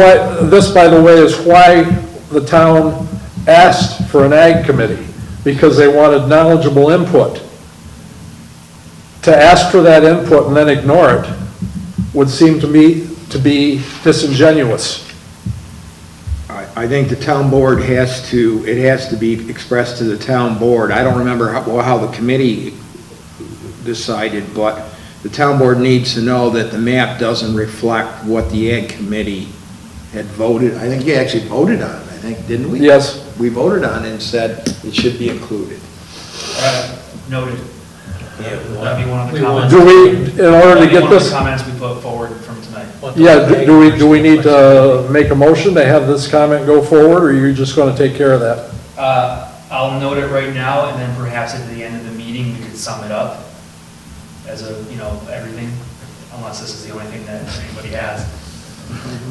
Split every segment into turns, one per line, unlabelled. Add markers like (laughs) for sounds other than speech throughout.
Why- This, by the way, is why the town asked for an ag committee, because they wanted knowledgeable input. To ask for that input and then ignore it would seem to me to be disingenuous.
I, I think the town board has to, it has to be expressed to the town board. I don't remember how, well, how the committee decided, but the town board needs to know that the map doesn't reflect what the ag committee had voted. I think you actually voted on it, I think, didn't we?
Yes.
We voted on it and said it should be included.
Uh, Noted. That'd be one of the
We want-
comments.
Do we, in order
That'd
to
be
get
one of the
this,
Comments we put forward from tonight.
yeah, do- do we, do we need uh, to make a motion to have this comment go forward, or are you just gonna take care of that?
Uh, I'll note it right now, and then perhaps at the end of the meeting, we could sum it up as a, you know, everything, unless this is the only thing that anybody has.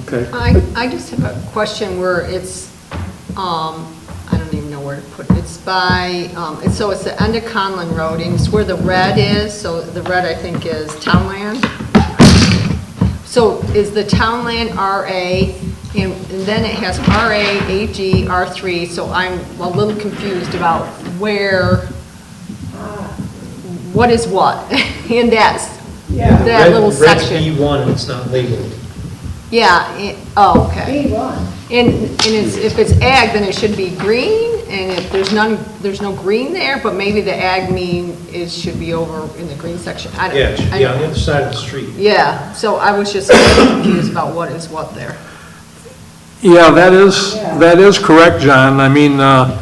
Okay.
I, I just have a question where it's, um, I don't even know where to put it. It's by, um, it's, so it's the end of Conlin Road, and it's where the red is, so the red, I think, is townland. So is the townland RA, and and then it has RA, AG, R3, so I'm a little confused about where, what is what (laughs) in that,
Yeah,
that
red-
little
Red's
section?
B1, it's not labeled.
Yeah, it- oh, okay.
B1.
And, and it's, if it's ag, then it should be green, and if there's none, there's no green there, but maybe the ag mean it should be over in the green section. I don't-
Yeah, it should be on the
I-
other side of the street.
Yeah, so I was just a little confused about what is what there.
Yeah, that is, that is correct, John. I mean, uh,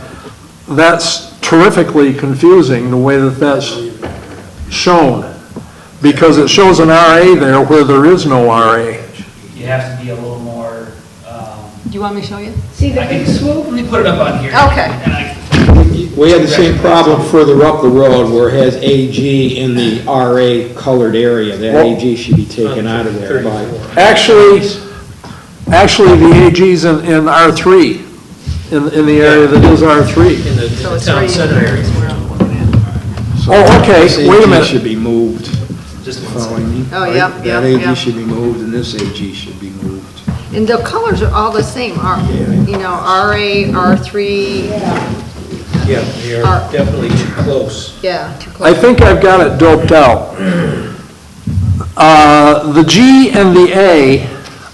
that's terrifically confusing, the way that that's shown, because it shows an RA there where there is no RA.
You have to be a little more, um,
Do you want me to show you?
See the
I
big
can,
swoop?
let me put it up on here.
Okay.
And I,
We had the same problem further up the road where it has AG in the RA colored area. That AG should be taken out of there by,
34.
Actually, actually, the AG's in, in R3, in, in the area that is R3.
In the in
So
the
it's
town
right
center area.
is where I'm looking at.
Oh, okay, wait a
AG
minute.
should be moved.
just one second.
Following me?
Oh,
Right?
yep,
That
yep,
AG
yep.
should be moved, and this AG should be moved.
And the colors are all the same, are, you know, RA, R3,
Yeah,
Yeah, they
Are-
are definitely too close.
yeah, too
I
close.
think I've got it doped out. Uh, The G and the A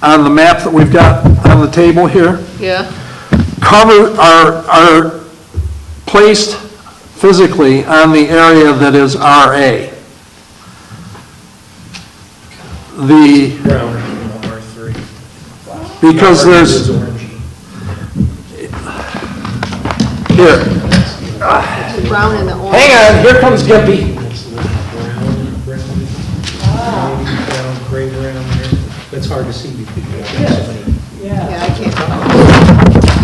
on the map that we've got on the table here,
Yeah,
cover, are, are placed physically on the area that is RA. The,
Brown, R3.
because there's,
Orangey.
here,
the brown and the orange.
hang on, here comes Gippy.
Brown, brown, maybe brown, gray around there. That's hard to see because you have so many.
yeah.
Yeah, I can't tell.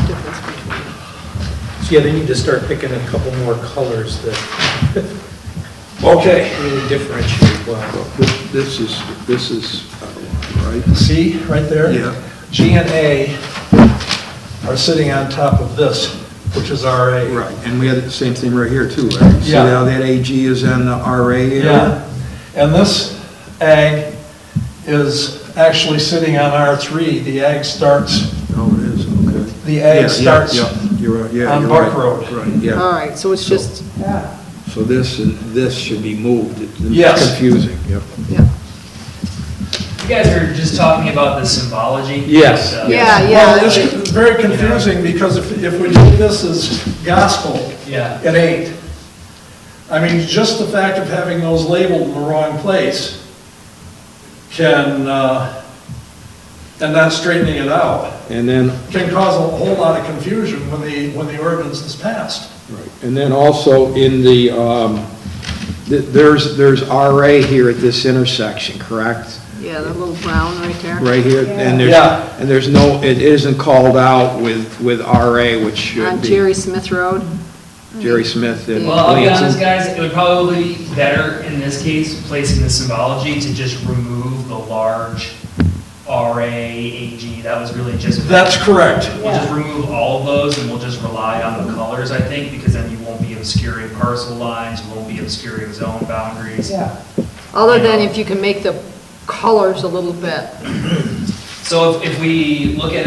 Difference between-
So yeah, they need to start picking a couple more colors that
(laughs)
Okay.
really differentiate well.
This this is, this is, uh, right?
See, right there?
Yeah.
G and A are sitting on top of this, which is RA.
Right, and we had the same thing right here too, right? See
Yeah.
how that AG is on the RA area?
Yeah, and this ag is actually sitting on R3. The ag starts,
Oh, it is, okay.
the
Yeah, yeah,
ag starts,
yeah, You're right, yeah.
on
you're
Bark
right.
Road.
Right,
All
yeah.
right, so it's just,
Yeah.
So this, and this should be moved. It's
Yes.
Confusing, yep.
yeah.
You guys were just talking about the symbology.
Yes.
Uh,
Yeah,
well,
yeah.
it's very confusing because if, if we do this as gospel,
Yeah.
it ain't. I mean, just the fact of having those labeled in the wrong place can, uh, and not straightening it out,
And then
can cause a whole lot of confusion when the, when the ordinance is passed.
Right, And then also in the, um, th- there's, there's RA here at this intersection, correct?
Yeah, the little brown right there.
Right here, and there's,
Yeah.
and there's no, it isn't called out with, with RA, which should
On
be.
Uh, Jerry Smith Road.
Jerry Smith and
Well, I'll be honest,
Lansing.
guys, it would probably be better in this case, placing the symbology to just remove the large RA, AG, that was really just.
That's correct.
We'll just remove all of those and we'll just rely on the colors, I think, because then you won't be obscuring parcel lines, you won't be obscuring zone boundaries.
Yeah.
Other than if you can make the colors a little bit
So if, if we look at it